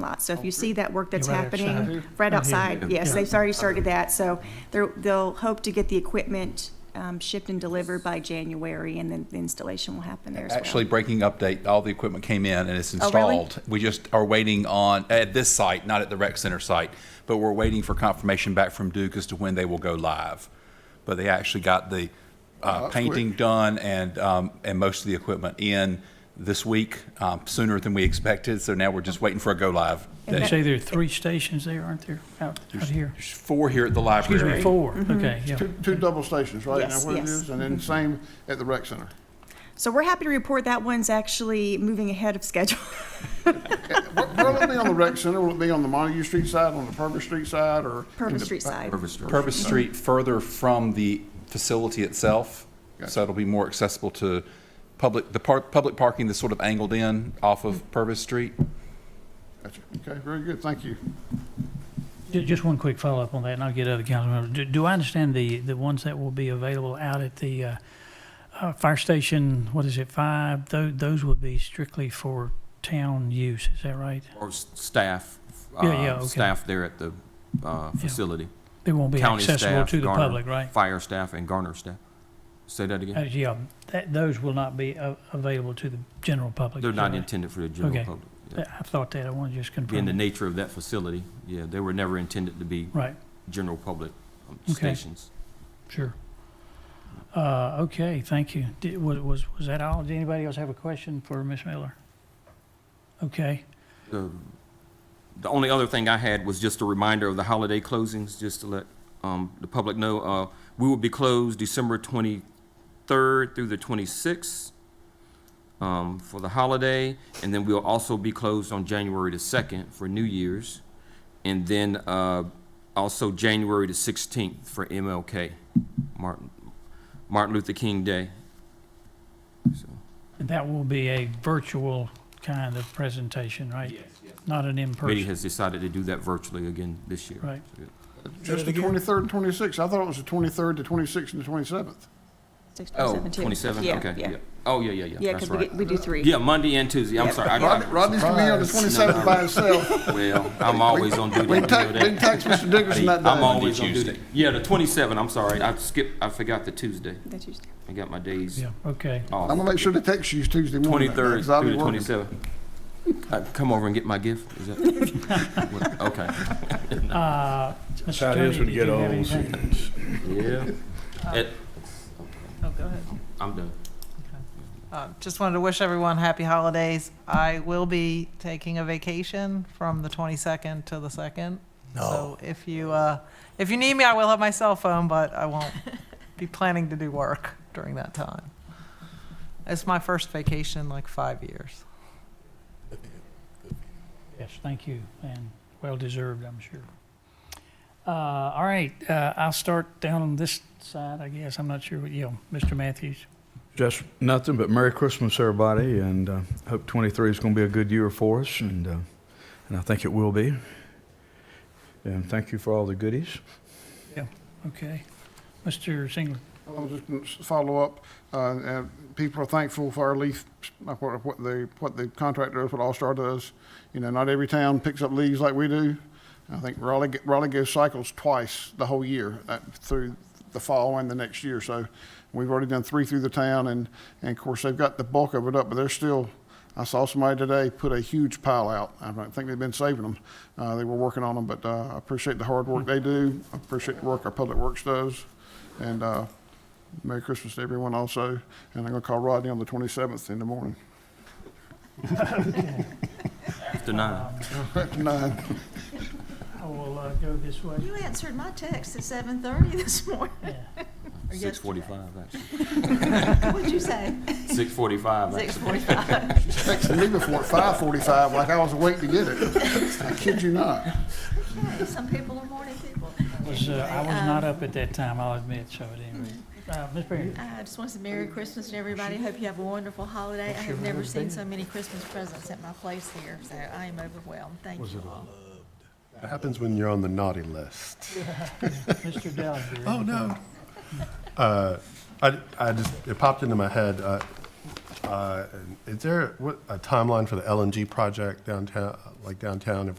lot. So if you see that work that's You're right happening, outside. right Yeah. outside, yes, they've already started that. So they're, they'll hope to get the equipment um, shipped and delivered by January, and then the installation will happen there as well. Actually, breaking update, all the equipment came in and it's Oh, really? installed. We just are waiting on, at this site, not at the rec center site, but we're waiting for confirmation back from Duke as to when they will go live. But they actually got the uh, painting done and, um, and most of the equipment in this week, um, sooner than we expected. So now we're just waiting for a go live. You date. say there are three stations there, aren't there, out, out here? There's four here at the Excuse me, library. four, okay, yeah. Two, two double stations, right? Yes, Now where it yes. is, and then same at the rec center. So we're happy to report that one's actually moving ahead of schedule. Where- Where will it be on the rec center? Will it be on the Montague Street side, on the Purvis Street side, or? in Purvis the- Street side. Purvis Street further from the facility itself, so it'll be more accessible to public, the par public parking that's sort of angled in off of Purvis Street. Gotcha. Okay, very good, thank you. Ju- Just one quick follow-up on that, and I'll get other council members. Do- Do I understand the, the ones that will be available out at the uh, uh, fire station, what is it, five? Tho- Those would be strictly for town use, is that right? Or s- staff, Yeah, yeah, uh, okay. staff there at the uh, facility. They won't be County accessible staff, to the Garner. public, right? Fire staff and Garner staff. Say that Uh, again? Yeah, that, those will not be a- available to the general public. They're is that not right? intended for the general Okay. public. Uh, I thought that, I wanted to just Being the confirm. nature of that facility, yeah, they were never intended to be Right, general public um, Okay. stations. sure. Uh, Okay, thank you. Did- wa- Was, was that all? Did anybody else have a question for Ms. Miller? Okay, The the only other thing I had was just a reminder of the holiday closings, just to let um, the public know. Uh, We will be closed December 23rd through the 26th um, for the holiday, and then we'll also be closed on January the 2nd for New Year's, and then uh, also January the 16th for MLK, Martin Martin Luther King Day. So, that will be a virtual kind of presentation, right? Yes, yes. Not an Committee in-person, has decided to do that virtually again this year. right? So, Just the twenty-third and twenty-sixth. I thought it was the twenty-third, the twenty-sixth, and the twenty-seventh. Six, Oh, seven, two. 27, Yeah, okay, yeah. yeah. Oh, yeah, yeah, yeah. Yeah, that's because we, right. get- we do three. Yeah, Monday and Tuesday. I'm Yeah. sorry. I, Rodney, I, Rodney's gonna be on the twenty-seventh by himself. well, I'm always on duty. We You can text, know we that. can text Mr. Dickerson that I'm day. always on duty. Yeah, the 27. I'm sorry. I skipped. I forgot the Tuesday. That's Tuesday. I got my days Yeah, okay. I'm off. gonna make sure to text you Tuesday morning. 23rd 'cause I'll be through the working. 27th. I come over and get my gift. Is that What- okay? Uh, Mr. How it is Attorney, when did you you get have old. anything? Yeah. It, Oh, go ahead. I'm done. Uh, Just wanted to wish everyone happy holidays. I will be taking a vacation from the 22nd to the 2nd. So if you, uh, if you need me, I will have my cell phone, but I won't be planning to do work during that time. It's my first vacation in like five years. Yes, thank you, and well-deserved, I'm sure. Uh, All right, uh, I'll start down on this side, I guess. I'm not sure what, you know, Mr. Matthews. Just nothing but Merry Christmas, everybody, and uh, hope 23 is going to be a good year for us, and uh, and I think it will be. And thank you for all the goodies. Okay. Mr. Singleton, I'll just gonna s- follow up, uh, and people are thankful for our leaf, like what, what the, what the contractor does, what All-Star does. You know, not every town picks up leaves like we do. I think Raleigh, g- Raleigh goes cycles twice the whole year, uh, through the fall and the next year. So we've already done three through the town and, and of course, they've got the bulk of it up, but they're still, I saw somebody today put a huge pile out. I don't think they've been saving them. Uh, they were working on them, but, uh, I appreciate the hard work they do. I appreciate the work our Public Works does. And, uh, Merry Christmas to everyone also, and I'm gonna call Rodney on the twenty-seventh in the morning. After Um, nine. Nine. I will uh, go this way. You answered my text at seven thirty this morning. Yeah. Or yesterday. 6:45 actually. What'd you say? 6:45 actually. Six forty-five. Texted me before at five forty-five, like I was awake to get it. I kid you not. Some people are morning people. Was, uh, I was Anyway, not um, up at that time, I'll admit, so at any rate. Uh, Ms. Perry, I just want to say Merry Christmas to everybody. Hope you have a wonderful holiday. I have never seen so many Christmas presents at my place here, so I am overwhelmed. Thank you all. It happens when you're on the naughty list. Mr. Dellinger. Oh, no. Uh, I, I just, it popped into my head, uh, Uh, and Is there what- a timeline for the LNG project downtown, like downtown? If we